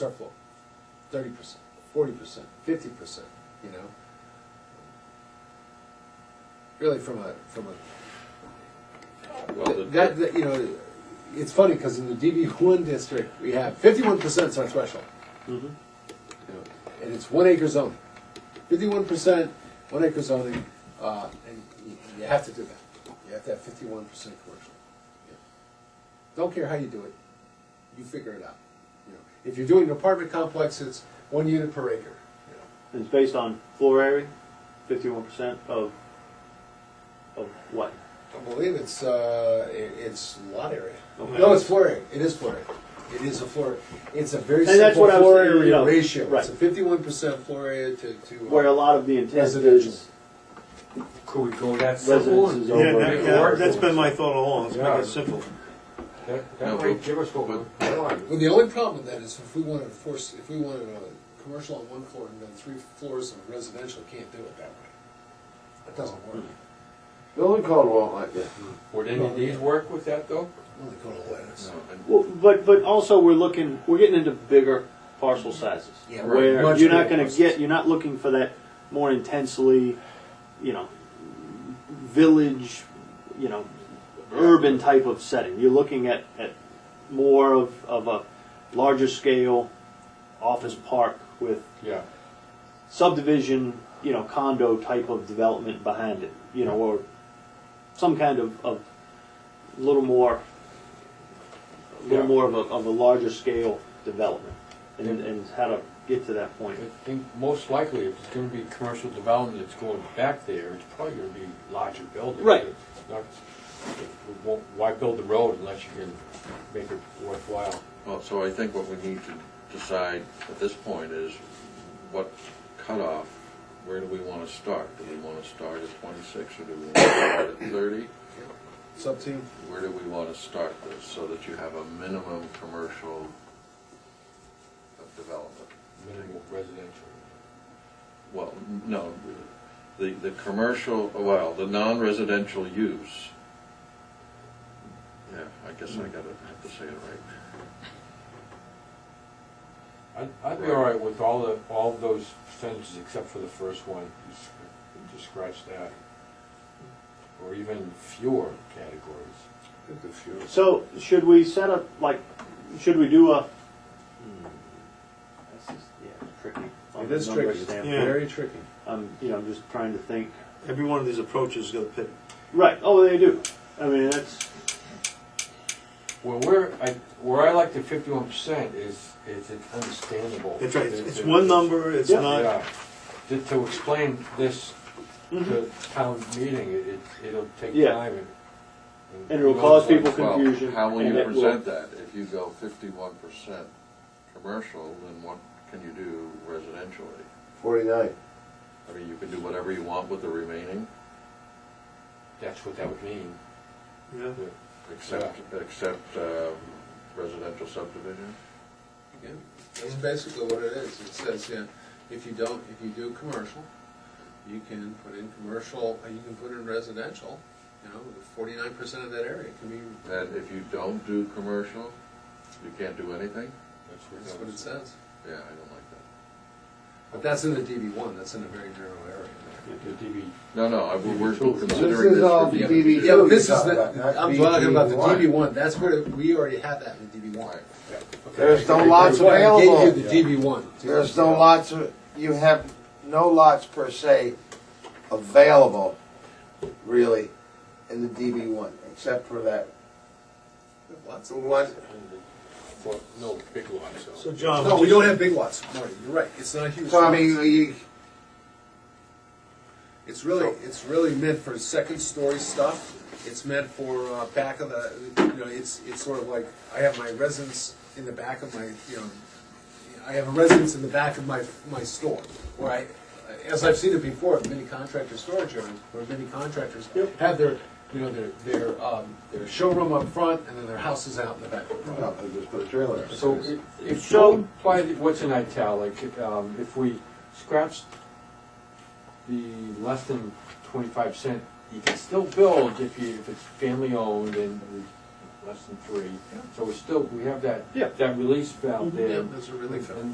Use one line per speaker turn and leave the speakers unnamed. circle, thirty percent, forty percent, fifty percent, you know? Really from a, from
Well,
a,
the-
that, that, you know, it's funny, cause in the DB one district, we have fifty-one percent's our threshold. You know, And it's one acre zoning, fifty-one percent, one acre zoning, uh, and you, you have to do that. You have to have fifty-one percent commercial. Yeah. Don't care how you do it, you figure it out. You know, If you're doing an apartment complex, it's one unit per acre. you know.
And it's based on floor area, fifty-one percent of, of what?
I believe it's, uh, i- it's lot area.
Okay.
No, it's floor area, it is floor area. It is a floor, it's a very
And that's
simple
what I was
floor
saying, you
area
know,
ratio.
right.
It's a fifty-one percent floor area to, to. uh,
Where a lot of the intent
Residential.
is
Could we go that simple?
residences
and-
Yeah,
over.
that,
Yeah.
that- that's been my thought all along, let's make it simple.
That,
No,
that might
but-
give us what we
but-
want.
Well, the only problem then is if we wanted to force, if we wanted a commercial on one floor and then three floors of residential, can't do it that way. That doesn't work.
Building code won't let you.
Would any of these work with that though?
Only go to letters.
Well, but, but also we're looking, we're getting into bigger parcel sizes.
Yeah, right.
Where
Much
you're not
bigger
gonna
parcels.
get, you're not looking for that more intensely, you know, village, you know, urban type of setting. You're looking at, at more of, of a larger scale office park with
Yeah.
subdivision, you know, condo type of development behind it, you know, or some kind of, of little more, a little
Yeah.
more of a, of a larger scale development, and, and how to get to that point.
I think most likely if it's gonna be commercial development that's going back there, it's probably gonna be larger buildings.
Right.
It's not- we won't- Why build the road unless you can make it worthwhile?
Well, so I think what we need to decide at this point is what cutoff, where do we want to start? Do we want to start at twenty-six or do we want to start at thirty?
It's up to you.
Where do we want to start this so that you have a minimum commercial of development?
Minimal residential.
Well, n- no, the, the commercial, well, the non-residential use. Yeah, I guess I gotta have to say it right.
I'd, I'd be all right with all the, all those sentences except for the first one, just, just scratch that. Or even fewer categories.
So, should we set up, like, should we do a? hmm, This is, yeah, tricky. on
It
the
is
number
tricky,
standpoint.
Yeah.
very tricky.
I'm, you know, I'm just trying to think.
Every one of these approaches is gonna pick,
Right, oh, they do. I mean, that's,
Well, where I, where I like the fifty-one percent is, is it's understandable.
that's right, it's-
That-
it's
that-
one number, it's
Yeah.
not,
Yeah, to, to explain this to town meeting, it, it- it'll take
Yeah.
time and.
And it'll cause people
Well,
confusion,
How will
and
you
it will-
present that? If you go fifty-one percent commercial, then what can you do residentially?
Forty-nine.
I mean, you can do whatever you want with the remaining,
That's what that would mean.
yeah,
except, except uh, residential subdivision.
That's basically what it is. It says, yeah, if you don't, if you do commercial, you can put in commercial, uh, you can put in residential, you know, forty-nine percent of that area can be,
And if you don't do commercial, you can't do anything?
That's
that's what it says.
Yeah, I don't like that.
But that's in the DB one, that's in a very narrow area.
The DB,
No, no, I- we're
This
considering
is all
this. for
DB
DB.
Yeah, but this
You're
is
talking
the,
about, not
I'm talking about the
DB1.
DB one, that's where, it- we already have that in the DB one.
Right.
There's no
That's
lots
why I gave
available.
you the DB one.
There's no lots, of- you have no lots per se available, really, in the DB one, except for that
Lots of-
one.
and the- for- no, big lot,
so
so.
John.
No, we don't have big lots, Marty, you're right, it's not a huge.
So I
lot.
mean, you,
It's really, it's really meant for second story stuff. It's meant for uh, back of the, you know, it's, it's sort of like, I have my residence in the back of my, you know, I have a residence in the back of my, my store, where I, as I've seen it before, many contractor storage areas, where many contractors have their, you know, their, their, um, their showroom up front, and then their houses out in the back.
no, they just put a trailer. up.
So i- if
So-
you apply the- what's in italic, um, if we scratch the less than twenty-five cent, you can still build if you, if it's family-owned and less than three. So we still, we have that,
Yeah.
that release valve there.
Mhm. That's a relief.
And